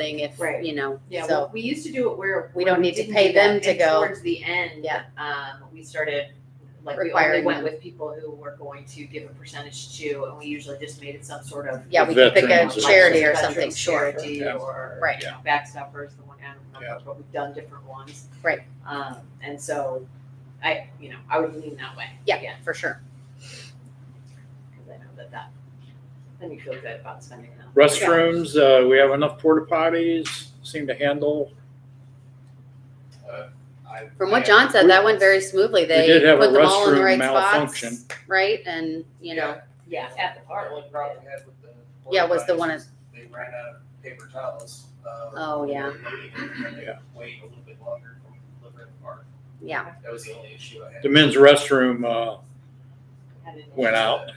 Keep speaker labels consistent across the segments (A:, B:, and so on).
A: thing if,
B: Right.
A: you know,
B: Yeah,
A: so.
B: well, we used to do it where.
A: We
B: where
A: don't need to
B: didn't
A: pay
B: do that,
A: them to
B: and
A: go.
B: Towards the end,
A: Yeah.
B: um, we started, like, we only
A: Requiring them.
B: went with people who were going to give a percentage to, and we usually just made it some sort of.
A: Yeah, we could pick a
C: Veterans.
A: charity or
B: Veterans
A: something, sure.
B: Charity
C: Yeah.
B: or,
A: Right.
B: you know, Backstoppers, the one, I don't
C: Yeah.
B: remember, but we've done different ones.
A: Right.
B: Um, and so, I, you know, I would lean that way.
A: Yeah.
B: again,
A: For sure.
B: Cause I know that that, then you feel good about spending that.
C: Restrooms, uh, we have enough porta potties, seem to handle.
D: I-
A: From what
D: I-
A: John said, that went very smoothly. They
C: did have a
A: put them all in the right
C: restroom
A: spots,
C: malfunction.
A: right? And, you know,
B: Yeah, at the park.
D: The only problem we had with the.
A: Yeah, was the
D: porta-potties
A: one
D: is They ran out of paper towels. uh,
A: Oh,
D: when
A: yeah.
D: we were loading it, and they
C: Yeah.
D: Wait a little bit longer from delivering the park.
A: yeah,
D: That was the only issue I had.
C: The men's restroom, uh,
B: had it in-
C: went out,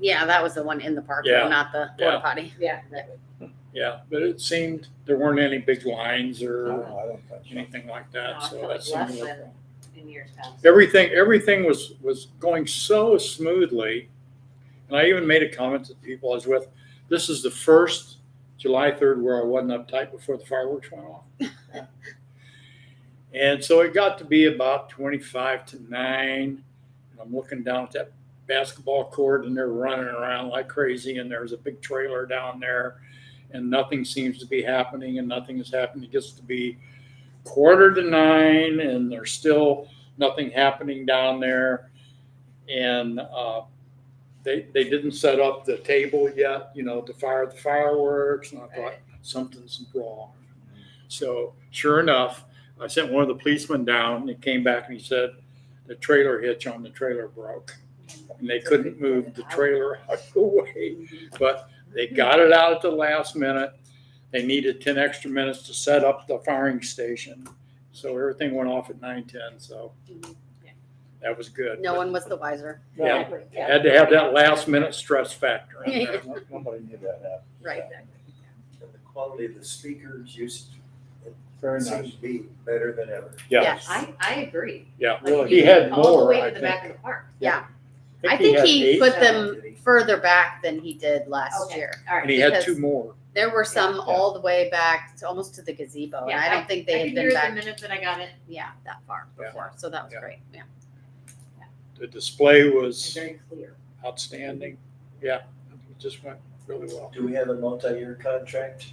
A: yeah, that was the one in the park, though,
C: Yeah.
A: not the
C: Yeah.
A: porta potty.
B: Yeah.
C: yeah, but it seemed there weren't any big lines or
E: No, I don't think so.
C: anything like
B: No,
C: that,
B: I
C: so
B: felt
C: that
B: like
C: seemed.
B: less
C: to work
B: than in years past.
C: everything everything was was going so smoothly and i even made a comment to the people i was with this is the first july 3rd where i wasn't uptight before the fireworks went off and so it got to be about 25 to 9 and i'm looking down at that basketball court and they're running around like crazy and there's a big trailer down there and nothing seems to be happening and nothing is happening it gets to be quarter to nine and they're still nothing happening down there. And uh, they, they didn't set up the table yet, you know, to fire the fireworks. And I thought
B: Right.
C: something's wrong. So sure enough, I sent one of the policemen down and he came back and he said, the trailer hitch on the trailer broke. And they couldn't move the trailer out of the way. But they got it out at the last minute. They needed ten extra minutes to set up the firing station. So everything went off at nine ten, so that was good.
A: No one was the wiser,
C: Yeah, had to have that last minute stress factor in there.
E: No- Nobody knew that happened.
A: right?
F: And the quality of the speakers used,
E: Very
F: seems
E: nice.
F: to be better than ever.
C: Yeah,
A: Yeah.
B: I, I agree.
C: yeah.
B: Like,
E: Really.
C: He had
B: All the
C: more,
B: way to
C: I
B: the
C: think.
B: back of the park.
A: I think
C: had
A: he
C: eight,
A: put
F: Did
A: them
F: he?
A: further back than he did last
B: Okay.
A: year.
B: All
C: And
B: right.
C: he had
A: because-
C: two more.
A: There were some
E: Yeah.
A: all the way back, to almost to the gazebo, and
B: Yeah,
A: I don't think
B: I
A: they
B: could
A: had
B: hear
A: been
B: the
A: back,
B: minute that I got it.
A: yeah, that far
C: Yeah.
A: before, so that was
C: Yeah.
A: great, yeah.
C: The display
B: It's
C: was
B: very clear.
C: outstanding. Yeah, it just went really well.
F: Do we have a multi-year contract?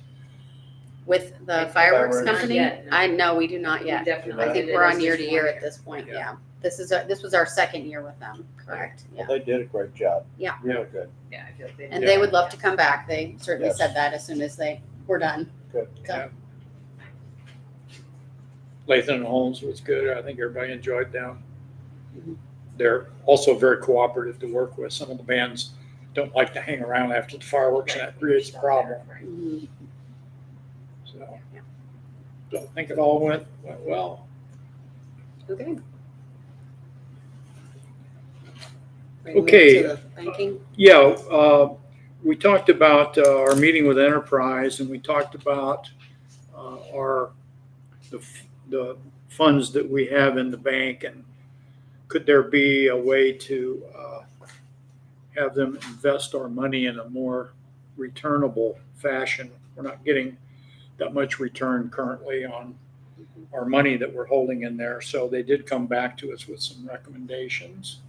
A: With the
F: Like
A: fireworks
F: fireworks.
A: company?
B: Not yet, no.
A: I, no, we do not
B: We
A: yet.
B: Definitely.
A: I think
B: did it
A: we're
B: as
A: on
B: just
A: year to
B: one
A: year at this point,
C: Yeah.
A: yeah. This is, our- this was our second year with them, correct, yeah.
E: Well, they did a great job.
A: Yeah.
E: Really good.
B: Yeah, I feel like
A: And
B: did.
A: they would love to come back, they certainly
E: Yes.
A: said that as soon as they were done.
C: Lathan and Holmes was good. I think everybody enjoyed them. They're also very cooperative to work with. Some of the bands don't like to hang around after the fireworks and that creates a problem.
B: Right.
A: Mhm.
C: So so I think it all went, went well.
A: Okay. Ready to move
C: Okay.
A: to the Banking,
C: Yeah, uh, we talked about uh, our meeting with Enterprise and we talked about uh, our, the f- the funds that we have in the bank and could there be a way to uh, have them invest our money in a more returnable fashion? We're not getting that much return currently on our money that we're holding in there. So they did come back to us with some recommendations,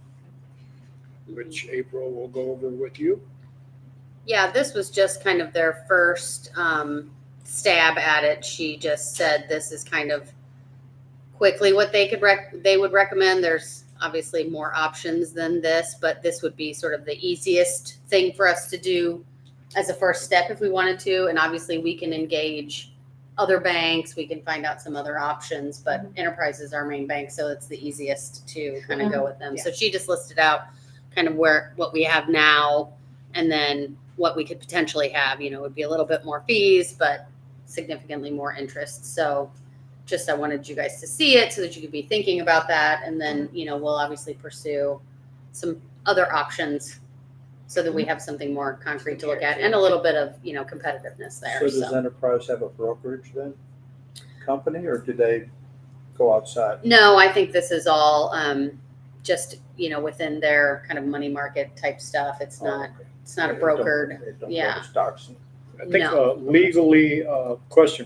C: which April will go over with you.
A: yeah, this was just kind of their first, um, stab at it, she just said this is kind of quickly what they could rec, they would recommend, there's obviously more options than this, but this would be sort of the easiest thing for us to do as a first step if we wanted to, and obviously we can engage other banks, we can find out some other options, but Enterprise is our main bank, so it's the easiest to kind of go with them. So she just listed out kind of where, what we have now, and then what we could potentially have, you know, would be a little bit more fees, but significantly more interest, so just I wanted you guys to see it so that you could be thinking about that, and then, you know, we'll obviously pursue some other options so that we have something more concrete to look at, and a little bit of, you know, competitiveness
E: So
A: there,
E: does
A: so.
E: Enterprise have a brokerage then? Company or do they go outside?
A: No, I think this is all, um, just, you know, within their kind of money market type stuff, it's not, it's not a
E: They Oh, don't-
A: brokered,
E: they don't go to
A: yeah.
E: Stocks and
C: I think
A: No.
C: uh, legally, uh, question